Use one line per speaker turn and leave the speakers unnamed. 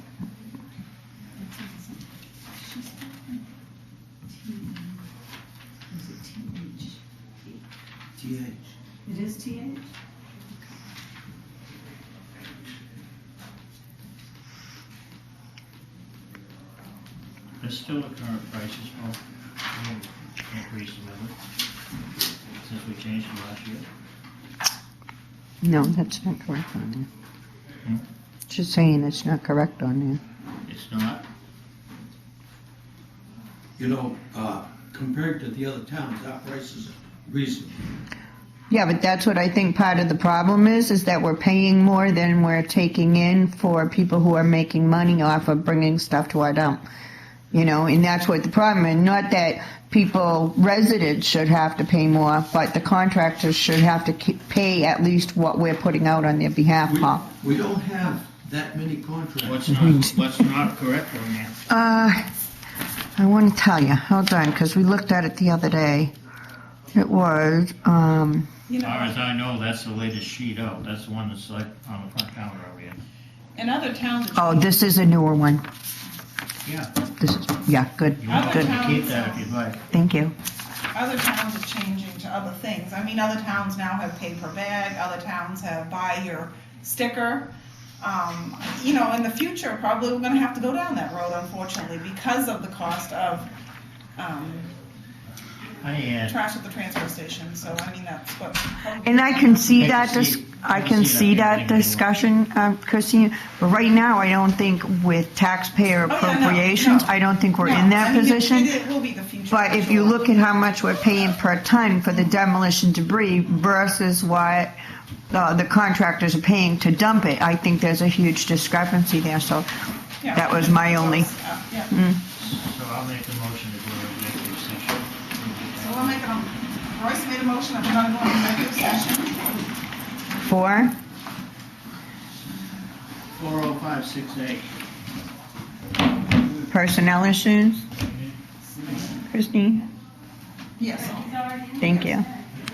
TH.
It is TH?
It's still the current prices, Paul. We haven't increased them, have we? Since we changed them last year.
No, that's not correct on
Hmm?
there. Just saying it's not correct on there.
It's not.
You know, uh, compared to the other towns, our price is reasonable.
Yeah, but that's what I think part of the problem is, is that we're paying more than we're taking in for people who are making money off of bringing stuff to our dump. You know, and that's what the problem is. Not that people, residents should have to pay more, but the contractors should have to keep, pay at least what we're putting out on their behalf,
We-
Paul.
We don't have that many contracts.
What's not, what's not correct on there?
Uh, I want to tell you, hold on, because we looked at it the other day. It was, um,
You
As far
know,
as I know, that's the latest sheet out. That's the one that's like on the front counter over here.
in other towns, it's-
oh, this is a newer one.
Yeah.
This is, yeah, good,
You want
good.
to keep that if you'd like.
Thank you.
other towns are changing to other things. I mean, other towns now have pay per bag, other towns have buy your sticker. Um, you know, in the future, probably we're gonna have to go down that road unfortunately because of the cost of, um,
I had,
trash at the transfer station, so I mean, that's what.
And I can see that,
can
dis-
see-
I can see that
everything.
discussion, um, Christine, but right now, I don't think with taxpayer
Oh, yeah, no,
appropriations,
no.
I don't think we're
No,
in that
I mean, it-
position.
It will be the future.
But
for
if you
sure.
look at how much we're paying per ton for the demolition debris versus what uh, the contractors are paying to dump it, I think there's a huge discrepancy there, so
Yeah.
that was my only- Mm.
Uh, Yeah,
so I'll make the motion to go to executive session.
so we'll make a, Royce made a motion, I'm gonna go into executive session.
four,
Four oh five six eight.
personnel issues. Christine,
Yes.
thank you.